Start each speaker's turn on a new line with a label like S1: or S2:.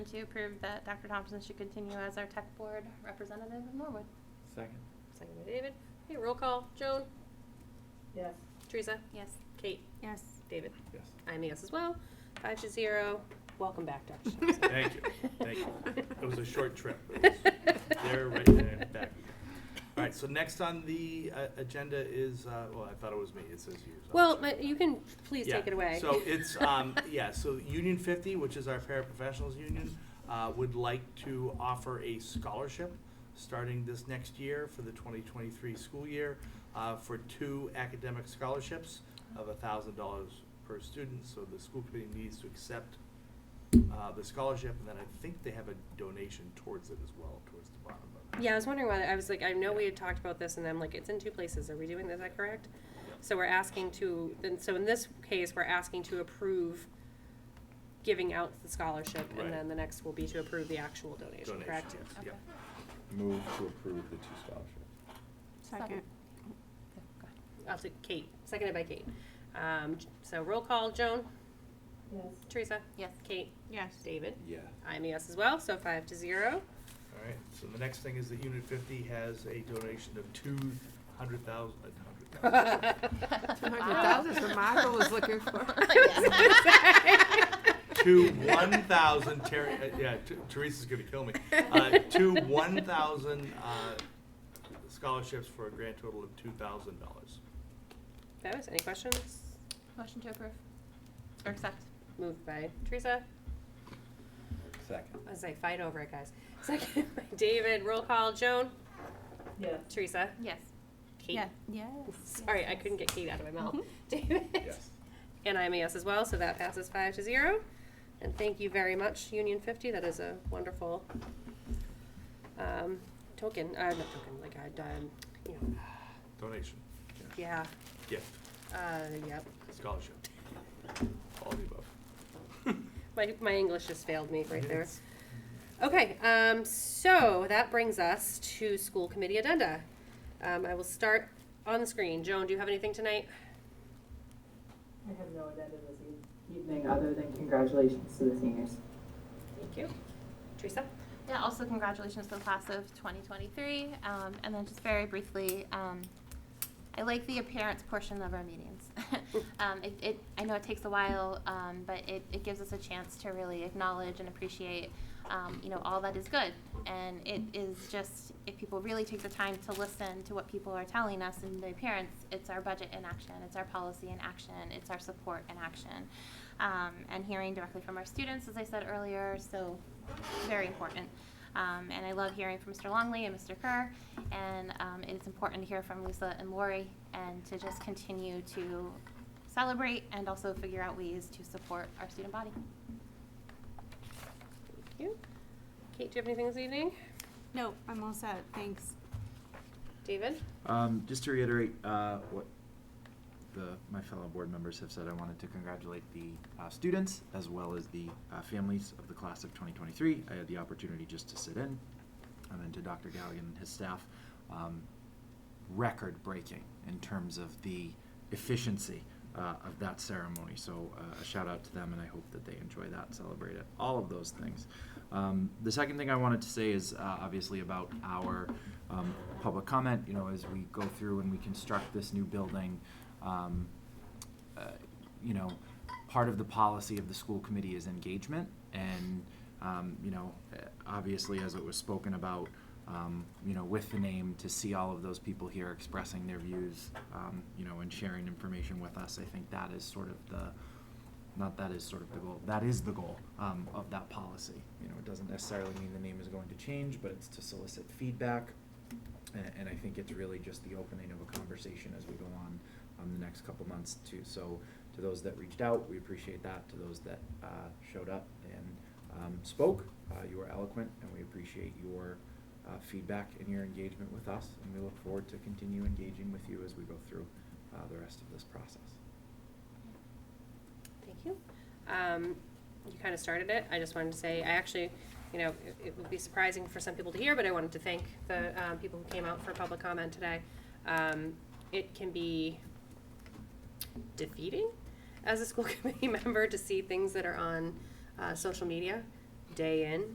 S1: To approve that Dr. Thompson should continue as our tech board representative in Norwood.
S2: Second.
S3: Second by David. Hey, roll call. Joan?
S4: Yes.
S3: Teresa?
S1: Yes.
S3: Kate?
S1: Yes.
S3: David?
S2: Yes.
S3: I'm a yes as well. Five to zero. Welcome back, Dr. Thompson.
S2: Thank you, thank you. It was a short trip. There, right there, back. All right, so next on the uh, agenda is, uh, well, I thought it was me, it says you. so I'm
S3: Well,
S2: sorry.
S3: my- you can please
S2: Yeah,
S3: take it away.
S2: So it's, um, yeah, so Union Fifty, which is our paraprofessionals union, uh, would like to offer a scholarship starting this next year for the twenty twenty-three school year, uh, for two academic scholarships of a thousand dollars per student, so the school committee needs to accept, uh, the scholarship, and then I think they have a donation towards it as well, towards the bottom of it.
S3: Yeah, I was wondering why, I was like, I know we had talked about this and I'm like, it's in two places. Are we doing, this? is that correct? So we're asking to, then, so in this case, we're asking to approve giving out the scholarship
S2: Right.
S3: and then the next will be to approve the actual donation,
S2: Donation,
S3: correct?
S2: yes, yep.
S5: Move to approve the two scholarships.
S1: Second.
S3: I'll take Kate, seconded by Kate. Um, j- so roll call, Joan,
S4: Yes.
S3: Teresa,
S1: Yes.
S3: Kate,
S1: Yes.
S3: David.
S5: Yeah.
S3: I'm a yes as well, so five to zero.
S2: All right, so the next thing is that Unit fifty has a donation of two hundred thousand, uh, hundred thousand.
S6: what Michael was looking for.
S2: to one thousand Terry, uh, yeah, T- Teresa's gonna kill me. Uh, to one thousand uh, scholarships for a grand total of two thousand dollars.
S3: Fabulous, any questions?
S1: Motion to approve. Or accept.
S3: Moved by Teresa,
S5: Second.
S3: I was like, fight over it, guys. Seconded by David, roll call, Joan,
S4: Yes.
S3: Teresa,
S1: Yes.
S3: Kate.
S1: Yes.
S3: Sorry, I couldn't get Kate out of my mouth.
S1: Mhm.
S3: David.
S5: Yes.
S3: And I'm a yes as well, so that passes five to zero. And thank you very much, Union Fifty, that is a wonderful um, token, uh, not token, like I, um, you know,
S2: Donation,
S3: yeah,
S2: gift,
S3: uh, yep.
S2: scholarship, all of the above.
S3: My, my English just failed me right there.
S2: Yes.
S3: Okay, um, so that brings us to school committee addenda. Um, I will start on the screen. Joan, do you have anything tonight?
S4: I have no agenda this eve- evening other than congratulations to the seniors.
S3: Thank you. Teresa?
S1: Yeah, also congratulations to the class of 2023. Um, and then just very briefly, um, I like the appearance portion of our meetings. um, it, it, I know it takes a while, um, but it, it gives us a chance to really acknowledge and appreciate, um, you know, all that is good. And it is just, if people really take the time to listen to what people are telling us in the appearance, it's our budget in action, it's our policy in action, it's our support in action. Um, and hearing directly from our students, as I said earlier, so very important. Um, and I love hearing from Mr. Longley and Mr. Kerr, and um, it's important to hear from Lisa and Lori, and to just continue to celebrate and also figure out ways to support our student body.
S3: Thank you. Kate, do you have anything this evening?
S6: No, I'm all set, thanks.
S3: David?
S7: Um, just to reiterate, uh, what the, my fellow board members have said, I wanted to congratulate the, uh, students as well as the, uh, families of the class of twenty twenty-three. I had the opportunity just to sit in, and then to Dr. Galligan and his staff, um, record-breaking in terms of the efficiency, uh, of that ceremony. So, uh, a shout out to them, and I hope that they enjoy that, celebrate it, all of those things. Um, the second thing I wanted to say is, uh, obviously about our, um, public comment, you know, as we go through and we construct this new building, um, uh, you know, part of the policy of the school committee is engagement, and, um, you know, eh, obviously, as it was spoken about, um, you know, with the name, to see all of those people here expressing their views, um, you know, and sharing information with us, I think that is sort of the, not that is sort of the goal, that is the goal, um, of that policy. You know, it doesn't necessarily mean the name is going to change, but it's to solicit feedback, and, and I think it's really just the opening of a conversation as we go on, um, the next couple months too. So to those that reached out, we appreciate that. To those that, uh, showed up and, um, spoke, uh, you were eloquent and we appreciate your, uh, feedback and your engagement with us. And we look forward to continue engaging with you as we go through, uh, the rest of this process.
S3: Thank you. Um, you kind of started it. I just wanted to say, I actually, you know, it, it would be surprising for some people to hear, but I wanted to thank the um, people who came out for public comment today. Um, it can be defeating as a school committee member to see things that are on uh, social media day in,